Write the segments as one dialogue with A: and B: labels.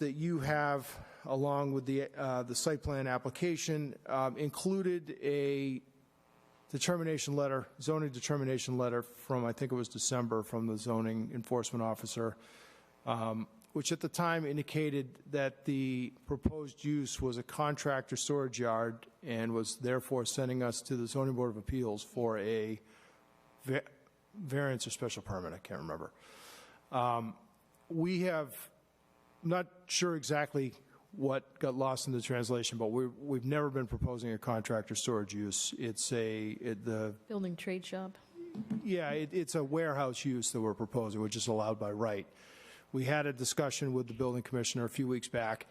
A: that you have, along with the, uh, the site plan application, um, included a determination letter, zoning determination letter from, I think it was December, from the zoning enforcement officer, um, which at the time indicated that the proposed use was a contractor storage yard and was therefore sending us to the zoning board of appeals for a va- variance or special permit, I can't remember. Um, We have, not sure exactly what got lost in the translation, but we, we've never been proposing a contractor storage use. It's a, it, the,
B: Building trade shop.
A: yeah, it, it's a warehouse use that we're proposing, which is allowed by right. We had a discussion with the building commissioner a few weeks back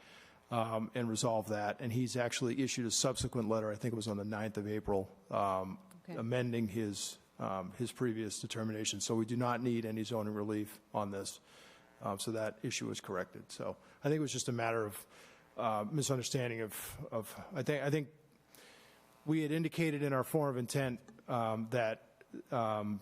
A: um, and resolved that, and he's actually issued a subsequent letter, I think it was on the 9th of April, um,
B: Okay.
A: amending his, um, his previous determination. So we do not need any zoning relief on this. Um, So that issue is corrected. So I think it was just a matter of uh, misunderstanding of, of, I think, I think we had indicated in our form of intent um, that um,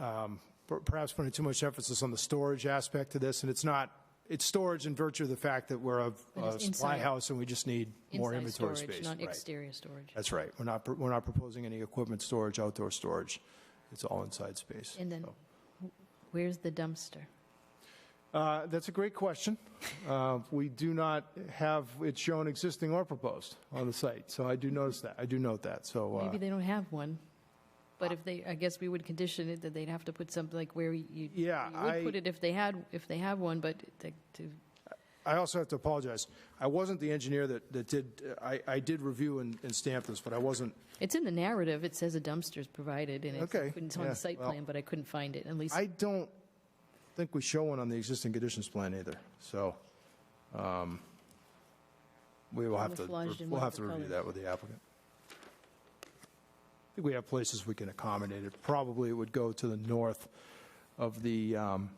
A: uh, um, per- perhaps putting too much emphasis on the storage aspect to this, and it's not, it's storage in virtue of the fact that we're a-
B: it's
A: a supply
B: inside-
A: house and we just need more
B: Inside
A: inventory
B: storage,
A: space.
B: Not
A: Right.
B: exterior storage.
A: That's right. We're not, we're not proposing any equipment storage, outdoor storage. It's all inside space.
B: And then,
A: So-
B: where's the dumpster?
A: Uh, That's a great question. Uh, We do not have it shown existing or proposed on the site, so I do notice that, I do note that, so. uh,
B: Maybe they don't have one. But if they, I guess we would condition it that they'd have to put something like where you, you
A: Yeah,
B: would put
A: I,
B: it if they had, if they have one, but to- to,
A: I also have to apologize. I wasn't the engineer that, that did, I, I did review and and stamp this, but I wasn't,
B: it's in the narrative, it says a dumpster's provided and it's-
A: Okay,
B: it's on
A: yeah,
B: the site
A: well-
B: plan, but I couldn't find it, at least.
A: I don't think we show one on the existing conditions plan either, so. um, We will have to,
B: Camouflaged in
A: we'll
B: one
A: have
B: of
A: to
B: the
A: review
B: colors.
A: that with the applicant. I think we have places we can accommodate it. Probably it would go to the north of the, um,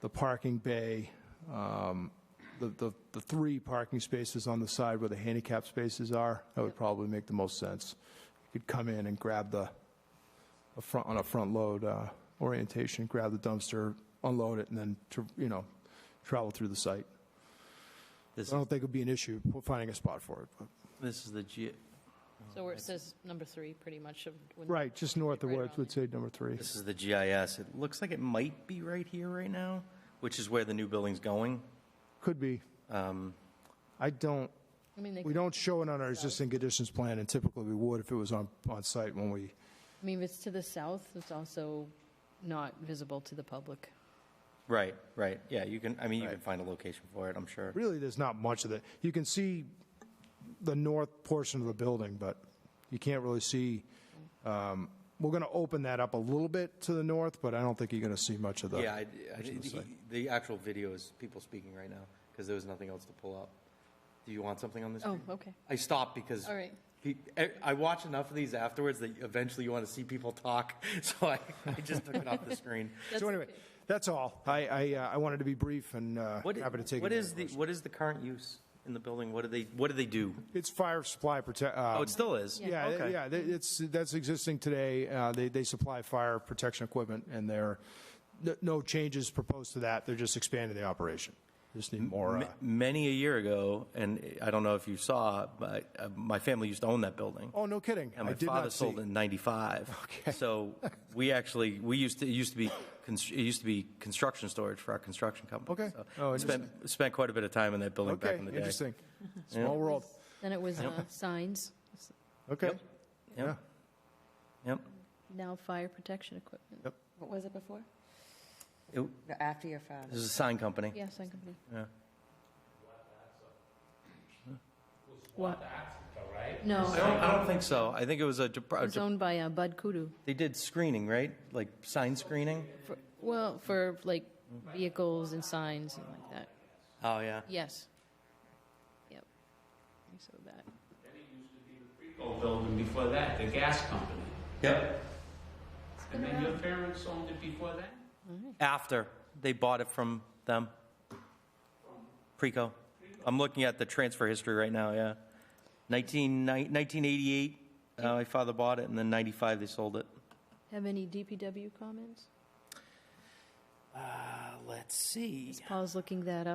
A: the parking bay, um, the, the, the three parking spaces on the side where the handicap spaces are. That would probably make the most sense. You could come in and grab the, a front, on a front load uh, orientation, grab the dumpster, unload it, and then, tr- you know, travel through the site. I
C: This,
A: don't think it'd be an issue finding a spot for it. but-
C: this is the G,
B: So where it says number three, pretty much. of when-
A: Right, just north of
B: Right
A: where it
B: around
A: would say number three.
C: this is the GIS. It looks like it might be right here right now, which is where the new building's going.
A: Could be.
C: Um,
A: I don't,
B: I mean, they
A: we
B: could-
A: don't show it on our existing conditions plan, and typically we would if it was on, on site when we,
B: I mean, if it's to the south, it's also not visible to the public.
C: Right, right. Yeah, you can, I mean, you can
A: Right.
C: find a location for it, I'm sure.
A: really, there's not much of it. You can see the north portion of the building, but you can't really see, um, we're going to open that up a little bit to the north, but I don't think you're going to see much of the.
C: Yeah, I, I,
A: Which is the
C: he- the actual video is people speaking right now because there was nothing else to pull up. Do you want something on this?
B: Oh, okay.
C: I stopped because
B: All right.
C: pe- I- I watch enough of these afterwards that eventually you want to see people talk. So I, I just took it off the screen.
A: So anyway, that's all. I, I, uh, I wanted to be brief and uh,
C: What, i-
A: happy to take.
C: what
A: any
C: is
A: other
C: the,
A: questions.
C: what is the current use in the building? What do they, what do they do?
A: It's fire supply um, protect.
C: Oh, it still is?
A: Yeah, th-
C: Okay.
A: yeah, th- it's, that's existing today. Uh, They, they supply fire protection equipment, and there, n- no changes proposed to that. They're just expanding the operation. Just need more, uh,
C: Ma- Many a year ago, and I don't know if you saw, but uh, my family used to own that building.
A: oh, no kidding.
C: And
A: I
C: my
A: did
C: father
A: not see.
C: sold it in '95. Okay. So we actually, we used to, it used to be, constr- it used to be construction storage for our construction company.
A: Okay.
C: So
A: Oh,
C: Spent, spent quite a bit of time in that building back
A: Okay,
C: in the day.
A: interesting. Small world.
B: Then it was uh, signs, s-
A: Okay.
C: Yep. Yep, yep.
B: now fire protection equipment.
A: Yep.
D: What was it before?
C: It-
D: After your father.
C: This is a sign company.
B: Yeah, sign company.
C: Yeah.
B: What? No,
C: I don't, I don't think so. I think it was a, Jap- a
B: it was
C: Jap-
B: owned by uh, Bud Kudu.
C: they did screening, right? Like sign screening?
B: For- Well, for like vehicles and signs and like that.
C: Oh, yeah.
B: Yes. Yep. So that.
E: Old building before that, the gas company.
C: Yep.
E: And then your parents owned it before that?
C: After they bought it from them. Preco. I'm looking at the transfer history right now, yeah. 19 1988, uh, my father bought it, and then 95, they sold it.
B: Have any DPW comments?
C: Let's see.
B: Paul's looking that up.